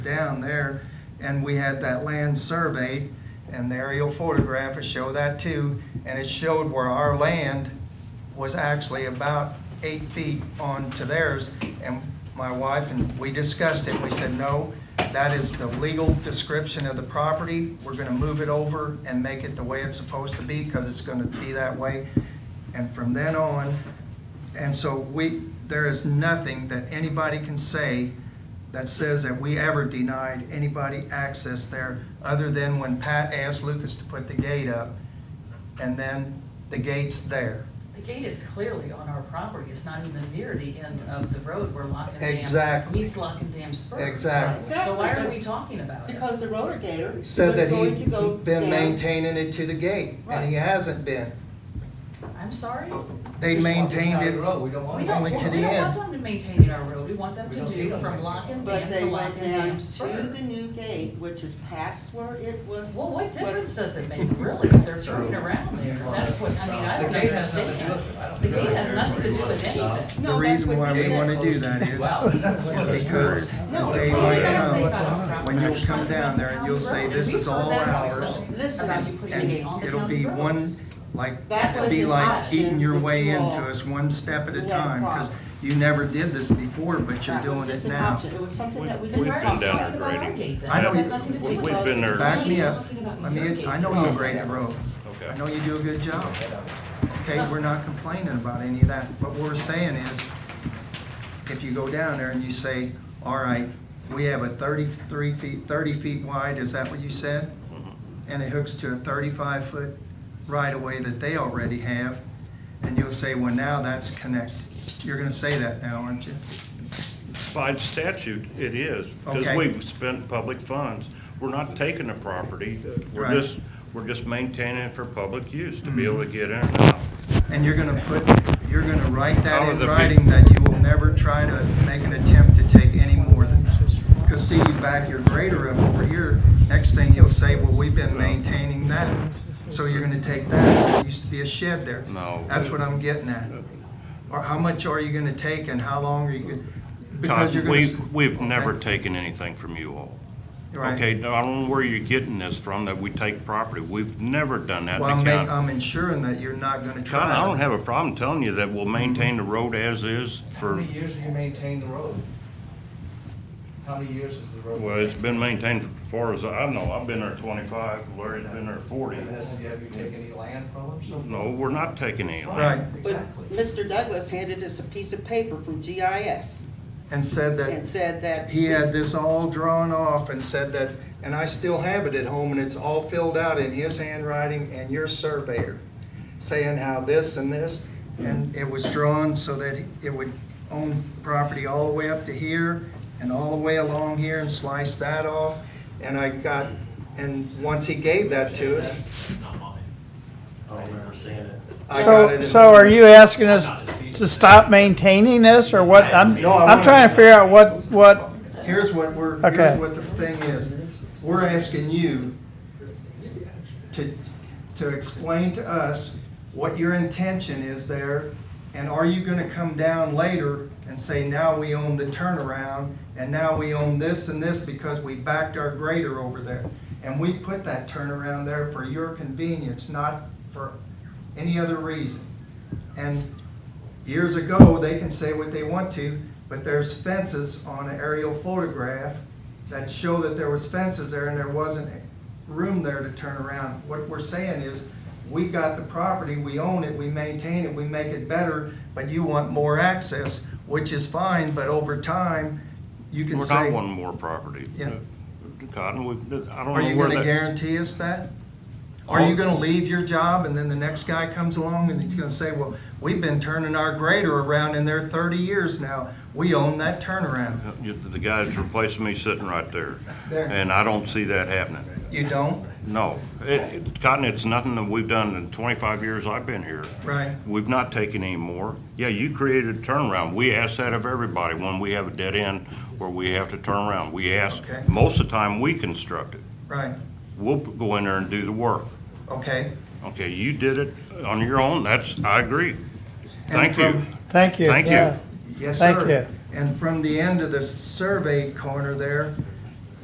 down there, and we had that land surveyed, and the aerial photograph will show that too, and it showed where our land was actually about eight feet onto theirs, and my wife and we discussed it, we said, no, that is the legal description of the property, we're gonna move it over and make it the way it's supposed to be, because it's gonna be that way. And from then on, and so we, there is nothing that anybody can say that says that we ever denied anybody access there, other than when Pat asked Lucas to put the gate up, and then the gate's there. The gate is clearly on our property, it's not even near the end of the road where Lock and Dam. Exactly. Meets Lock and Dam Spur. Exactly. So why are Exactly. we talking about it? Because the roller gator was Said that going he to go been down. maintaining it to the gate, and he Right. hasn't been. I'm sorry? They Just walk maintained beside it, the road, we don't want We it. don't, Only we to don't the want end. them to maintain our road, we want them We to don't need do them from to Lock and But Dam they to Lock went and Dam down to Spur. the new gate, which is past where it was. Well, what difference does it make really if they're turning around there? That's what, I mean, I The don't gate has nothing to do understand. with it. I don't The think gate it has matters nothing to where do he with wants to stop. The anything. No, that's reason what why he we said. wanna do that is Wow. That's what it because is. No, they What do you might guys say come, about our property? when you'll We're come talking down about there and county you'll say, road. this We've is heard all that ours, also, Listen, About you putting a and gate on the it'll county be road. one, like, That's it'd what be his like option eating your that way you all into us one step at a let time, because crop. you never did this before, but you're That was doing just it an now. option. It was something We- that we Then just we've why are been you talked down talking about. there. about our grading. gate then? I know This has you- nothing to do we- with we've us. been there. Back me He's up. talking I about your mean, gate. I know you grade the road. I know Okay. you do a good job. Okay, Oh. we're not complaining about any of that. What we're saying is, if you go down there and you say, all right, we have a thirty-three feet, thirty feet wide, is that what you said? And it hooks to a thirty-five foot right-of-way that they already have, and you'll say, well, now that's connected. You're gonna say that now, aren't you? By statute, it is, Okay. because we've spent public funds. We're not taking the property, Right. Mm-hmm. we're just, we're just maintaining it for public use, to be able to get in and out. And you're gonna put, you're gonna write Out that of in the big- writing that you will never try to make an attempt to take any more than that. Because see, you back your grader up over here, next thing you'll say, well, we've been maintaining that. So you're gonna take that, there used to be a shed there. No. That's what I'm getting at. Or how much are you gonna take and how long are you? gonna- Because you're gonna. We, s- we've never Okay, taken anything from you all. right. Okay, now, I don't know where you're getting this from, that we take property. We've never done that Well, in I'm the making, county. I'm ensuring that you're not gonna try. County, I don't to- have a problem telling you that we'll maintain Mm-hmm. the road as is How for, many years have you maintained the road? How many years has the road? well, it's been maintained for far as I know. I've been there twenty-five, Larry's been there forty. Mm-hmm. And has- Have you taken any land from them? So- No, we're not taking any land. Right. Exactly. But Mr. Douglas handed us a piece of paper from GIS And said that. and said that. He had this all drawn off and said that, and I still have it at home, and it's all filled out in his handwriting and your surveyor, saying how this and this, and it was drawn so that it would own property all the way up to here and all the way along here and slice that off, and I got, and once he gave that to us, I don't remember seeing it. I got So, it. so are you asking us to stop maintaining this, or what? I'm, No, I I'm trying to figure out what, what, Here's what we're, Okay. here's what the thing is. We're asking you to, to explain to us what your intention is there, and are you gonna come down later and say, now we own the turnaround, and now we own this and this because we backed our grader over there? And we put that turnaround there for your convenience, not for any other reason. And years ago, they can say what they want to, but there's fences on an aerial photograph that show that there was fences there and there wasn't room there to turn around. What we're saying is, we got the property, we own it, we maintain it, we make it better, but you want more access, which is fine, but over time, you can We're say, not wanting more property. Yeah. Cotton, we, I are don't you know where gonna that, guarantee us that? Are you gonna leave your job and then the next guy comes along and he's gonna say, well, we've been turning our grader around in there thirty years now, we own that turnaround. uh, You- the guy's replacing me sitting right there. There. And I don't see that happening. You don't? No. It, it- Cotton, it's nothing that we've done in twenty-five years I've been here. Right. We've not taken any more. Yeah, you created a turnaround. We ask that of everybody when we have a dead end where we have to turn around. We ask, Okay. most of the time, we construct it. Right, We'll go in there and do the work. okay. Okay, you did it on your own. That's, I agree. Thank you. from- thank you. Thank you. yeah. Yes, Thank sir. And from the end of the surveyed corner there,